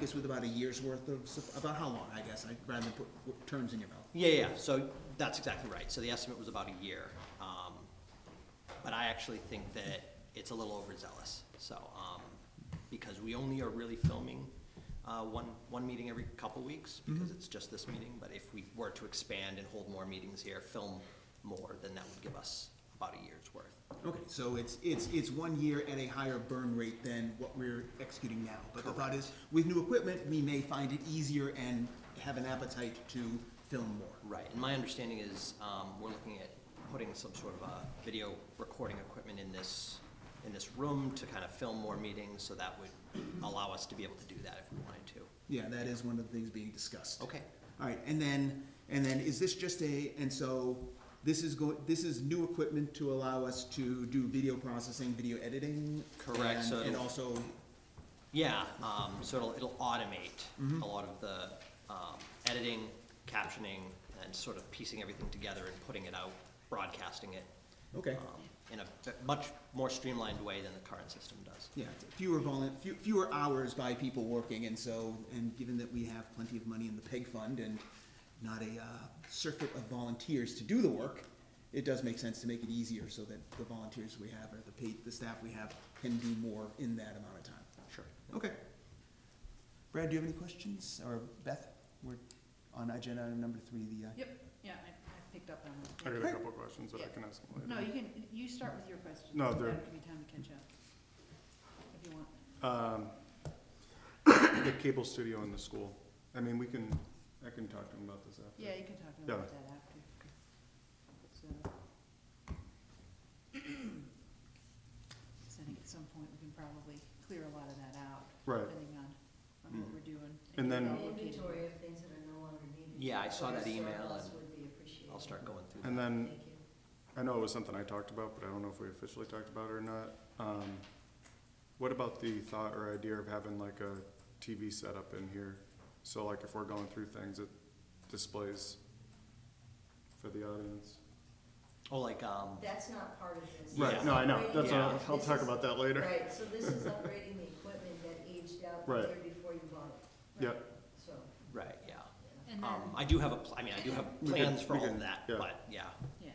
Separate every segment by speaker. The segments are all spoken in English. Speaker 1: this with about a year's worth of, sup- about how long, I guess, I'd rather than put w- terms in your mouth.
Speaker 2: Yeah, yeah, so that's exactly right. So the estimate was about a year. Um, But I actually think that it's a little overzealous, so, um, because we only are really filming uh, one, one meeting every couple weeks, because it's just this meeting, but if we were to expand and hold more meetings here, film more, then that would give us about a year's worth.
Speaker 1: Okay, so it's, it's, it's one year at a higher burn rate than what we're executing now. But the thought is, with new equipment, we may find it easier and have an appetite to film more.
Speaker 2: Right, and my understanding is, um, we're looking at putting some sort of a video recording equipment in this, in this room to kind of film more meetings, so that would allow us to be able to do that if we wanted to.
Speaker 1: Yeah, that is one of the things being discussed.
Speaker 2: Okay.
Speaker 1: All right, and then, and then is this just a, and so this is go, this is new equipment to allow us to do video processing, video editing?
Speaker 2: Correct,
Speaker 1: and-
Speaker 2: so-
Speaker 1: And also,
Speaker 2: Yeah, um, so it'll, it'll automate a lot of the, um, editing, captioning, and sort of piecing everything together and putting it out, broadcasting it.
Speaker 1: okay,
Speaker 2: um, In a much more streamlined way than the current system does.
Speaker 1: yeah, fewer volun, few- fewer hours by people working, and so, and given that we have plenty of money in the PEG fund and not a uh, circuit of volunteers to do the work, it does make sense to make it easier so that the volunteers we have or the paid, the staff we have can do more in that amount of time.
Speaker 2: Sure.
Speaker 1: Okay. Brad, do you have any questions? Or Beth, we're on agenda item number three, the, uh,
Speaker 3: Yep, yeah, I, I picked up
Speaker 4: I
Speaker 3: on
Speaker 4: got
Speaker 3: that.
Speaker 4: a couple of questions that I can ask him
Speaker 3: No,
Speaker 4: later.
Speaker 3: you can, you start with your question.
Speaker 4: No,
Speaker 3: That'll
Speaker 4: they're-
Speaker 3: Give me time to catch up, if you want.
Speaker 4: The cable studio in the school, I mean, we can, I can talk to him about this after.
Speaker 3: Yeah, you can talk
Speaker 4: Yeah.
Speaker 3: about that after. So. So I think at some point, we can probably clear a lot of that out.
Speaker 4: Right.
Speaker 3: Depending on, on what
Speaker 4: Mm.
Speaker 3: we're doing.
Speaker 4: And then-
Speaker 3: where
Speaker 5: An
Speaker 3: we're located.
Speaker 5: Inventory of things that are no longer needed.
Speaker 2: Yeah, I saw
Speaker 5: Or
Speaker 2: that email,
Speaker 5: surplus
Speaker 2: and
Speaker 5: would be appreciated.
Speaker 2: I'll start going through that.
Speaker 4: And then,
Speaker 5: Thank you.
Speaker 4: I know it was something I talked about, but I don't know if we officially talked about it or not. Um, What about the thought or idea of having like a TV setup in here? So like if we're going through things, it displays for the audience?
Speaker 2: Oh, like, um,
Speaker 5: That's not part of this.
Speaker 2: Right,
Speaker 5: This
Speaker 4: No,
Speaker 5: is
Speaker 4: I know,
Speaker 5: upgrading-
Speaker 4: that's, what I'll
Speaker 5: this
Speaker 4: I'll talk
Speaker 5: is-
Speaker 4: about that later.
Speaker 5: Right, so this is upgrading the equipment that aged out the
Speaker 4: Right.
Speaker 5: year before you bought it,
Speaker 4: Yeah,
Speaker 5: so.
Speaker 2: right, yeah.
Speaker 5: yeah.
Speaker 3: And
Speaker 2: Um,
Speaker 3: then,
Speaker 2: I do have a, pl- I mean, I do have
Speaker 4: We can-
Speaker 2: plans for
Speaker 4: we
Speaker 2: all of
Speaker 4: can-
Speaker 2: that,
Speaker 4: yeah.
Speaker 2: but, yeah.
Speaker 3: yeah,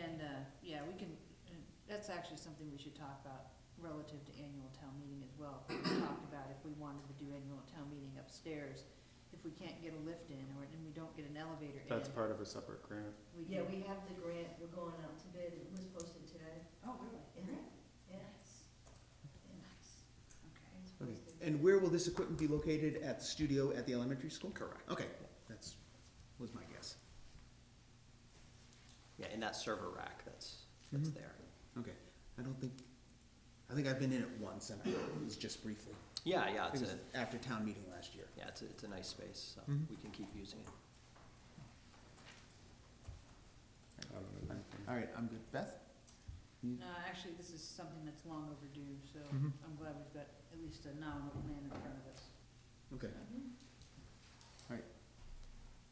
Speaker 3: and, uh, yeah, we can, uh, that's actually something we should talk about relative to annual town meeting as well. We talked about if we wanted to do annual town meeting upstairs, if we can't get a lift in or, and we don't get an elevator in.
Speaker 4: that's part of a separate grant.
Speaker 3: we
Speaker 5: Yeah,
Speaker 3: can-
Speaker 5: we have the grant, we're going out to bid, it was posted today.
Speaker 3: Oh, really?
Speaker 5: Yeah, yeah,
Speaker 3: Okay.
Speaker 5: It's
Speaker 1: okay.
Speaker 5: posted.
Speaker 1: And where will this equipment be located? At the studio at the elementary school?
Speaker 2: Correct.
Speaker 1: Okay, that's, was my guess.
Speaker 2: Yeah, in that server rack that's, that's
Speaker 1: Mhm.
Speaker 2: there.
Speaker 1: Okay, I don't think, I think I've been in it once and I- it was just briefly.
Speaker 2: Yeah, yeah,
Speaker 1: I
Speaker 2: it's
Speaker 1: think
Speaker 2: a,
Speaker 1: It was after town meeting last year.
Speaker 2: yeah, it's a, it's a nice space, so
Speaker 1: Mhm.
Speaker 2: we can keep using it.
Speaker 4: I don't know anything.
Speaker 1: All right, I'm good. Beth?
Speaker 3: No, Uh, actually, this is something that's long overdue, so
Speaker 1: Mhm.
Speaker 3: I'm glad we've got at least a nominal plan in front of us.
Speaker 1: Okay,
Speaker 5: Mhm.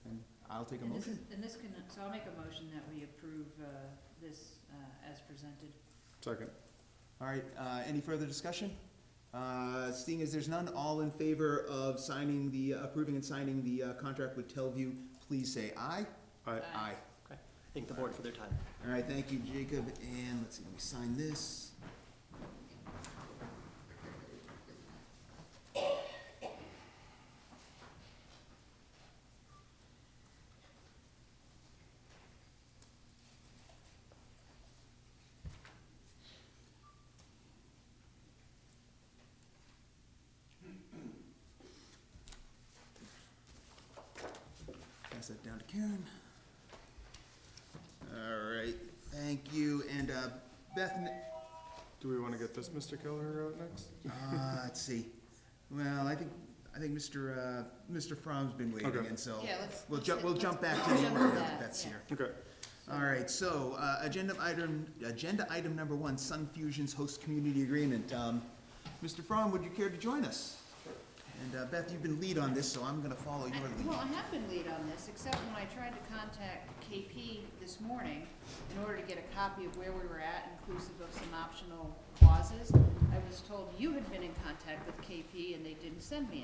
Speaker 1: and I'll take a
Speaker 3: And this is,
Speaker 1: motion.
Speaker 3: and this can, so I'll make a motion that we approve, uh, this, uh, as presented.
Speaker 4: Second,
Speaker 1: All right, uh, any further discussion? Uh, seeing as there's none, all in favor of signing the, approving and signing the, uh, contract with Telview, please say aye.
Speaker 4: I,
Speaker 3: Aye.
Speaker 2: Thank the board for their time.
Speaker 1: All right, thank you, Jacob, and let's see, let me sign this. Pass that down to Karen. All right, thank you, and uh, Beth,
Speaker 4: do we wanna get this Mr. Keller out next?
Speaker 1: uh, let's see, well, I think, I think Mr., uh, Mr. Fromm's been waiting,
Speaker 4: Okay.
Speaker 1: and so.
Speaker 3: Yeah, let's-
Speaker 1: We'll
Speaker 3: let's
Speaker 1: jump,
Speaker 3: hit-
Speaker 1: we'll
Speaker 3: let's-
Speaker 1: jump back to
Speaker 3: let's
Speaker 1: the
Speaker 3: jump
Speaker 1: order
Speaker 3: to
Speaker 1: that
Speaker 3: that,
Speaker 1: that's
Speaker 3: yeah.
Speaker 1: here.
Speaker 4: Okay,
Speaker 1: All right, so, uh, agenda item, agenda item number one, Sun Fusion's host community agreement. Um, Mr. Fromm, would you care to join us? And uh, Beth, you've been lead on this, so I'm gonna follow your
Speaker 3: I- Well,
Speaker 1: lead.
Speaker 3: I have been lead on this, except when I tried to contact KP this morning in order to get a copy of where we were at, inclusive of some optional clauses, I was told you had been in contact with KP and they didn't send me